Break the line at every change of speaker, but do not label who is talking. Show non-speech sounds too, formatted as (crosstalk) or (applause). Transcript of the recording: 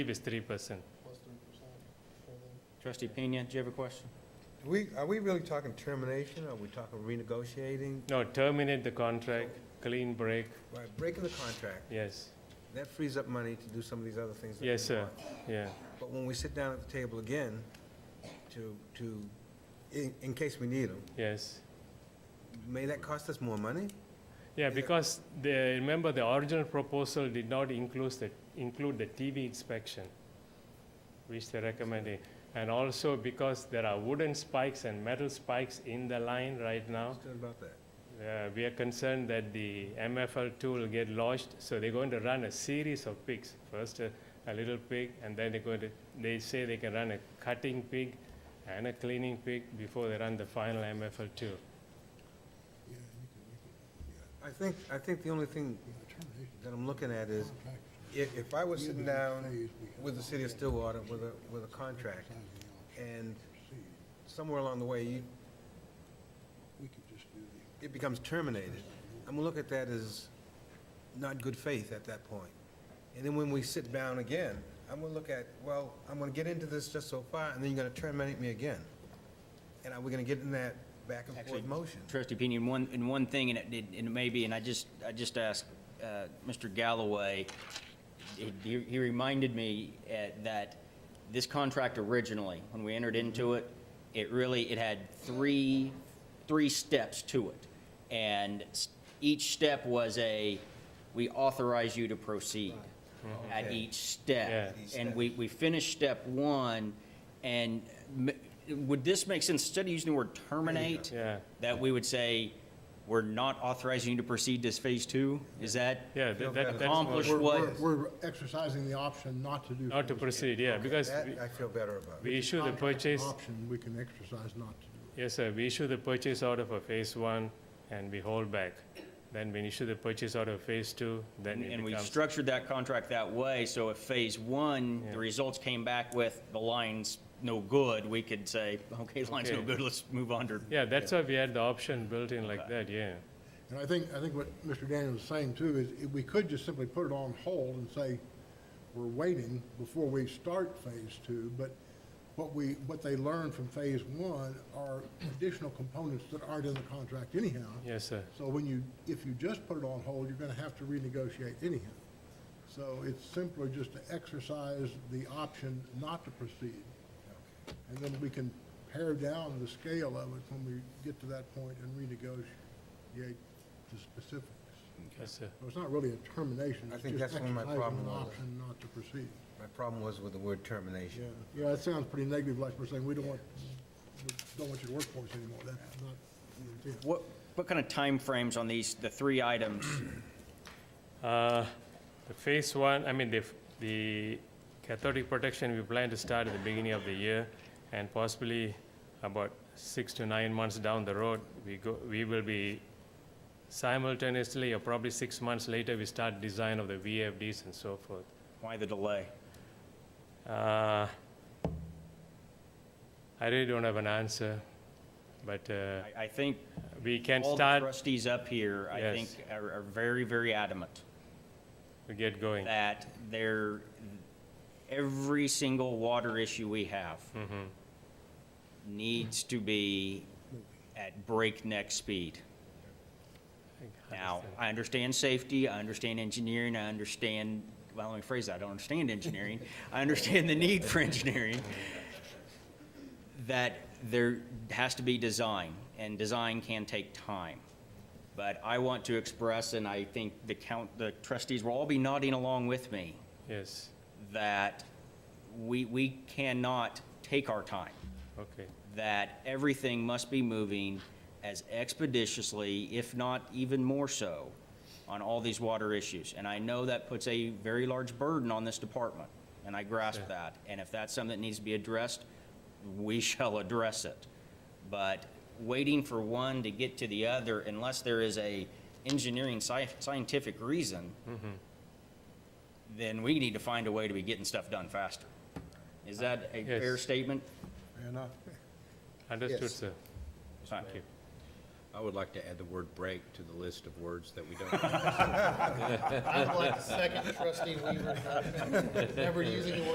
is three percent.
Trustee Pena, do you have a question?
Do We, are we really talking termination, are we talking renegotiating,
No, terminate the contract, clean break,
By breaking the contract?
yes,
That frees up money to do some of these other things that we want.
Yes, sir. yeah.
But when we sit down at the table again, to, to, in, in case we need them,
Yes.
may that cost us more money?
Yeah,
Is it-
because the, remember the original proposal did not include the, include the TV inspection, which they recommended. And also because there are wooden spikes and metal spikes in the line right now,
Just about that.
uh, we are concerned that the MFL two will get lodged. So they're going to run a series of pigs. First a, a little pig, and then they're going to, they say they can run a cutting pig and a cleaning pig before they run the final MFL two.
I think, I think the only thing that I'm looking at is, if, if I was sitting down with the city of Stillwater with a, with a contract, and somewhere along the way, you, it becomes terminated, I'm gonna look at that as not good faith at that point. And then when we sit down again, I'm gonna look at, well, I'm gonna get into this just so far, and then you're gonna terminate me again. And are we gonna get in that back and
Actually,
forth motion?
Trustee Pena, in one, in one thing, and it, did- and it may be, and I just, I just asked, uh, Mr. Galloway, he- he, he reminded me, uh, that this contract originally, when we entered into it, it really, it had three, three steps to it. And s- each step was a, we authorize you to proceed at
Okay.
each step.
Yeah.
And we, we finished step one, and m- would this make sense, instead of using the word terminate?
Yeah.
That we would say, we're not authorizing you to proceed to phase two? Is that?
Yeah, that, that- that's
Accomplish
more,
We're-
what-
we're- We're exercising the option not to do.
not to
phase two.
proceed, yeah, because
That uh,
we-
I feel better about.
we issue the
Contract
purchase,
Option, we can exercise not to do.
yes, sir, we issue the purchase order for phase one and we hold back. Then we issue the purchase order for phase two, then it
And we
becomes,
structured that contract that way, so if phase one, the results came back with the line's no good, we could say, okay, line's no
Okay.
good, let's move on to.
yeah, that's why we had the option built in like that, yeah.
And I think, I think what Mr. Daniel was saying too is if we could just simply put it on hold and say, we're waiting before we start phase two, but what we, what they learned from phase one are additional components that aren't in the contract anyhow.
Yes, sir,
So when you, if you just put it on hold, you're gonna have to renegotiate anyhow. So it's simpler just to exercise the option not to proceed. And then we can pare down the scale of it when we get to that point and renegotiate the specifics.
yes, sir.
So it's not really a termination,
I
it's
think
just
that's one of
exercising
my
an
problem with it.
option not to proceed.
My problem was with the word termination.
Yeah, yeah, that sounds pretty negative, like we're saying, we don't want, we don't want you to work for us anymore, that's not the intent.
What, what kind of timeframes on these, the three items? (clears throat)
Uh, The phase one, I mean, the, f- the cathodic protection, we plan to start at the beginning of the year, and possibly about six to nine months down the road, we go, we will be simultaneously, or probably six months later, we start design of the VFDs and so forth.
Why the delay?
Uh, I really don't have an answer, but uh,
I, I think
we can
all the
start
trustees up here, I think,
Yes.
are are very, very adamant.
to get going.
that there, every single water issue we have needs to be at breakneck speed. Now, I understand safety, I understand engineering, I understand, well, let me phrase that, I don't understand engineering. I understand the need for engineering. That there has to be design, and design can take time. But I want to express, and I think the count, the trustees will all be nodding along with me,
Yes,
that we, we cannot take our time,
okay,
that everything must be moving as expeditiously, if not even more so, on all these water issues. And I know that puts a very large burden on this department, and I grasp
Sure.
that. And if that's something that needs to be addressed, we (laughs) shall address it. But waiting for one to get to the other, unless there is a engineering sci- scientific reason,
Mm-hmm.
then we need to find a way to be getting stuff done faster. Is that a
Yes.
fair statement?
Fair enough.
understood,
Yes.
sir.
Thank you.
I would like to add the word break to the list of words that we don't.
I'd like to second trustee Weaver's motion, never using the word